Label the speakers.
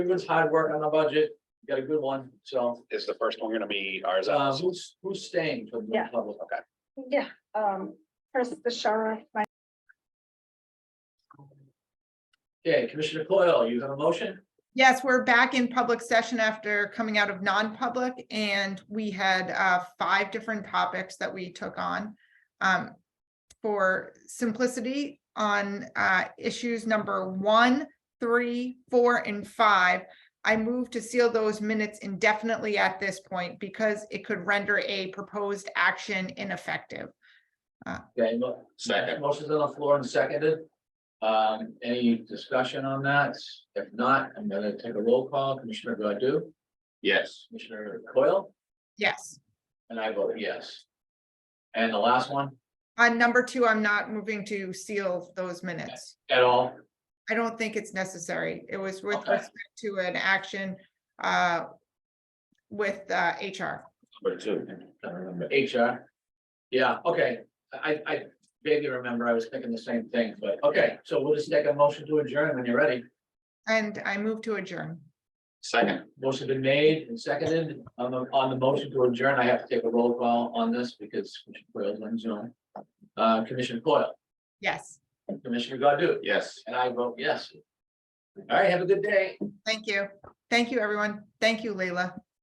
Speaker 1: Everyone's hard work on the budget, You got a good one, so,
Speaker 2: Is the first one gonna be ours?
Speaker 1: uh, who's, who's staying for the
Speaker 3: Yeah.
Speaker 1: public?
Speaker 3: Yeah, um, first the sheriff, my,
Speaker 1: Okay, Commissioner Coyle, you have a motion?
Speaker 4: Yes, we're back in public session after coming out of non-public and we had uh, five different topics that we took on. Um, For simplicity on uh, issues number one, three, four, and five. I move to seal those minutes indefinitely at this point because it could render a proposed action ineffective.
Speaker 1: Okay, mo-
Speaker 2: Second.
Speaker 1: motion's on the floor and seconded. Um, any discussion on that? If not, I'm gonna take a roll call, Commissioner Godu,
Speaker 2: Yes.
Speaker 1: Commissioner Coyle,
Speaker 4: Yes.
Speaker 1: and I vote yes. And the last one,
Speaker 4: On number two, I'm not moving to seal those minutes.
Speaker 1: at all,
Speaker 4: I don't think it's necessary. It was with
Speaker 1: Okay.
Speaker 4: respect to an action uh with uh HR.
Speaker 2: Number two.
Speaker 1: I don't remember, HR. Yeah, okay, I, I vaguely remember, I was thinking the same thing, but, okay, so we'll just take a motion to adjourn when you're ready.
Speaker 4: And I move to adjourn.
Speaker 2: Second.
Speaker 1: Motion been made and seconded. On the, on the motion to adjourn, I have to take a roll call on this because Commissioner Coyle's on Zoom. Uh, Commissioner Coyle,
Speaker 4: Yes,
Speaker 1: Commissioner Godu,
Speaker 2: Yes.
Speaker 1: and I vote yes. All right, have a good day.
Speaker 4: thank you. Thank you, everyone. Thank you, Leila.